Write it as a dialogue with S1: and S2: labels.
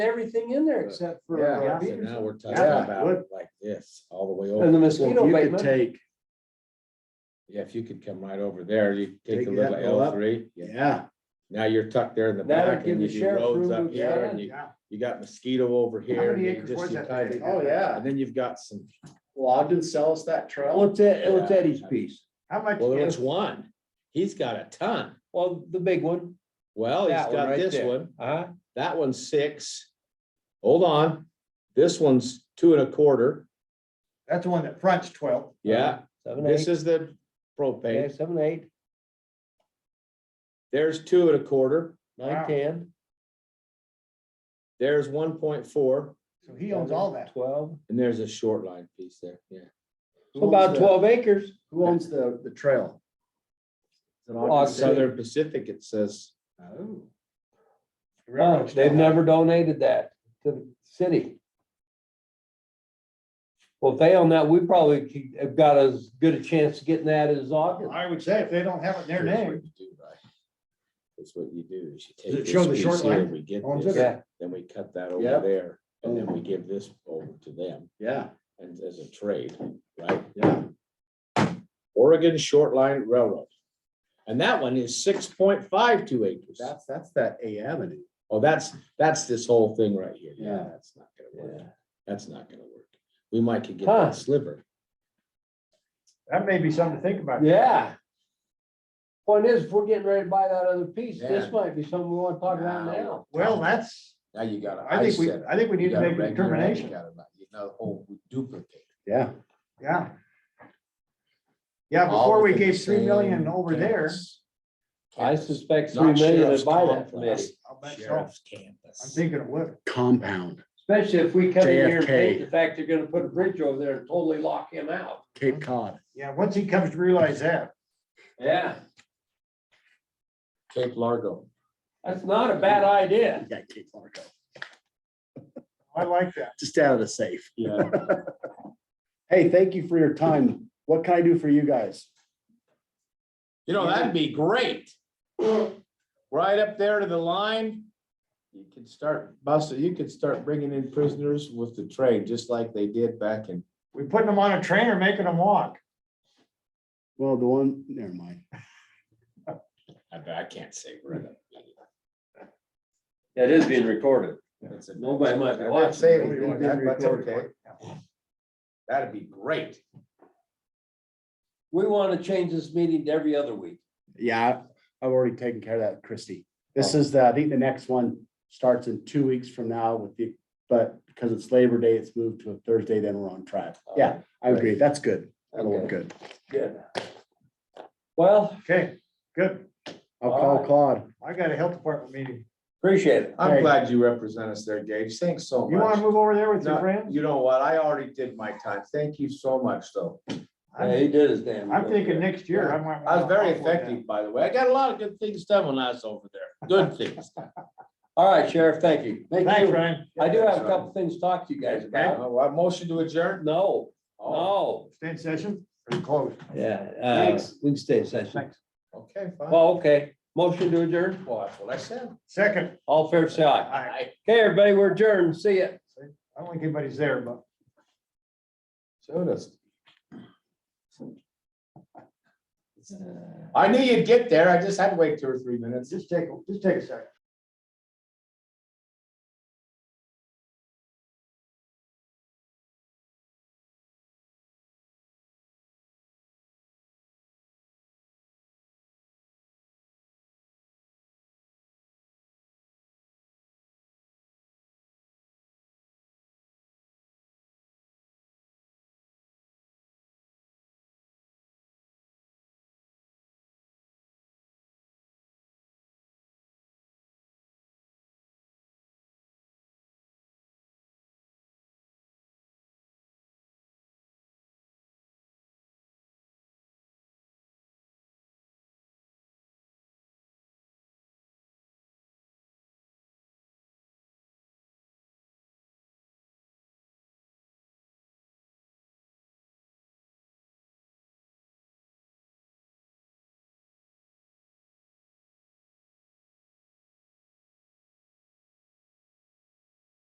S1: everything in there except for. uh,
S2: Yeah.
S3: So
S1: Peterson.
S3: now we're talking
S2: Yeah,
S3: about
S2: would.
S3: it like this, all the way
S1: And the
S3: over.
S2: So if
S1: mosquito
S2: you could
S1: abatement.
S2: take,
S3: Yeah, if you could come right over there, you take
S2: Take
S3: a
S2: that
S3: little L
S2: all up.
S3: three.
S2: yeah.
S3: Now you're tucked there in the
S1: That'd
S3: back
S1: give
S3: and you
S1: the
S3: do
S1: sheriff
S3: roads
S1: room
S3: up
S1: to
S3: here
S1: expand.
S3: and you, you got mosquito over here.
S4: many
S3: and you
S4: acres
S3: just-
S4: was
S3: you
S4: that
S3: tie
S4: thing?
S3: it-
S2: Oh, yeah.
S3: And then you've got some,
S2: Ogden sell us that trail.
S5: What's that, what's
S3: Yeah.
S5: Eddie's piece?
S4: How much?
S3: well,
S4: is-
S3: it's one. He's got a ton.
S5: Well, the big one.
S3: Well,
S5: That
S3: he's
S5: one
S3: got
S5: right
S3: this
S5: there.
S3: one.
S5: Uh-huh.
S3: That one's six. Hold on. This one's two and a quarter.
S4: That's the one that fronts twelve.
S3: Yeah,
S5: Seven,
S3: this
S5: eight,
S3: is the
S5: yeah,
S3: propane.
S5: seven, eight,
S3: There's two and a quarter.
S4: Wow.
S5: nine, ten.
S3: There's one point four
S4: So he owns all that.
S5: Twelve,
S3: and there's a short line piece there. Yeah.
S5: so about twelve acres.
S2: Who owns the, the trail? Is it
S5: Ogden.
S3: Southern Pacific, it says,
S2: Oh.
S5: Uh,
S4: Railroad's
S5: They've
S4: down.
S5: never donated that to the city. Well, if they own that, we probably could- have got as good a chance of getting that as Ogden.
S4: I would say if they don't have it in their
S3: Here's what
S4: name,
S3: you do, right? That's what you do is you
S4: Does
S3: take
S4: it show
S3: this
S4: the short
S3: piece here,
S4: line?
S3: and we get
S4: Owns
S3: this,
S5: Yeah,
S3: then we cut that over
S2: Yep.
S3: there. And then we give this over to them
S2: Yeah,
S3: and as a trade, right?
S2: yeah.
S3: Oregon Short Line Railroad. And that one is six point five two acres.
S2: That's, that's that A Avenue.
S3: Oh, that's, that's this whole thing right here.
S2: Yeah.
S3: That's not gonna work.
S5: yeah.
S3: That's not gonna work. We might could get
S5: Huh.
S3: that sliver.
S4: that may be something to think about.
S5: Yeah. Point is, if we're getting ready to buy that other piece, this might be something we want to talk about
S3: Now.
S5: now.
S4: Well, that's,
S3: Now you gotta.
S4: I think we, I think we
S3: You
S4: need to
S3: gotta
S4: make a
S3: regulate it, You
S4: determination.
S3: gotta, not- you know, oh, we duplicate.
S2: Yeah.
S4: Yeah. Yeah,
S3: All
S4: before we
S3: within the
S4: gave three million
S3: same
S4: over there.
S3: campus.
S5: I
S3: Campus.
S5: suspect three
S3: Not
S5: million
S3: sheriff's
S5: would buy that
S3: complex,
S5: from us,
S4: I'll bet so.
S3: Sheriff's
S4: I'm
S3: campus.
S4: thinking it would.
S2: Compound,
S5: especially if we come in here and
S2: JFK.
S5: hate the fact they're gonna put a bridge over there and totally lock him out.
S2: Cape Cod.
S4: Yeah, once he comes to realize that,
S5: Yeah,
S3: Cape Largo.
S5: that's not a bad idea.
S2: Yeah, Cape Largo,
S4: I like that.
S2: just out of the safe.
S3: Yeah.
S2: Hey, thank you for your time. What can I do for you guys?
S3: You know, that'd be great. Right up there to the line. You could start busting, you could start bringing in prisoners with the train, just like they did back in
S4: We putting them on a train or making them walk?
S2: Well, the one, never mind.
S3: I bet I can't say we're in a.
S5: It is being recorded.
S3: it's a-
S5: Nobody might be
S3: I'm not
S5: watching.
S3: saying
S5: Nobody might
S3: anything, that-
S5: be
S3: that's
S5: recording.
S3: okay. That'd be great.
S5: We want to change this meeting to every other week.
S2: Yeah, I've already taken care of that, Christie. This is the, I think the next one starts in two weeks from now with the, but because it's Labor Day, it's moved to a Thursday, then we're on track. Yeah, I agree. That's good. Oh, That'll look
S5: Okay.
S2: good.
S5: Good. Well,
S4: Okay, good.
S2: I'll
S5: All
S2: call
S5: right.
S2: Claude.
S4: I got a health department meeting.
S5: appreciate it.
S3: I'm
S2: Hey.
S3: glad you represent us there, Gage. Thanks so
S4: You wanna
S3: much.
S4: move over there with your
S3: No,
S4: friends?
S3: You know what? I already did my time. Thank you so much, though.
S5: Yeah, he did his damn.
S4: I'm
S5: good.
S4: thinking next year, I might.
S3: I was very
S4: I'll go down.
S3: effective, by the way. I got a lot of good things done when I was over there. Good things.
S5: All right, Sheriff, thank you.
S4: Thanks, Ryan.
S5: I do have a couple things to talk to you guys about.
S3: Uh, I motion to adjourn?
S5: No,
S3: Oh,
S5: no.
S4: Stay in session, pretty close.
S5: Yeah. uh,
S2: Thanks.
S5: We can stay in session.
S4: Thanks.
S3: okay, fine. Well,
S5: Well, okay. Motion to adjourn.
S3: that's what I said.
S4: Second,
S5: All fair side.
S4: Aye.
S5: Okay, everybody, we're adjourned. See ya.
S4: I don't think anybody's there, but.
S3: So does. I knew you'd get there. I just had to wait two or three minutes.
S4: Just take, just take a second.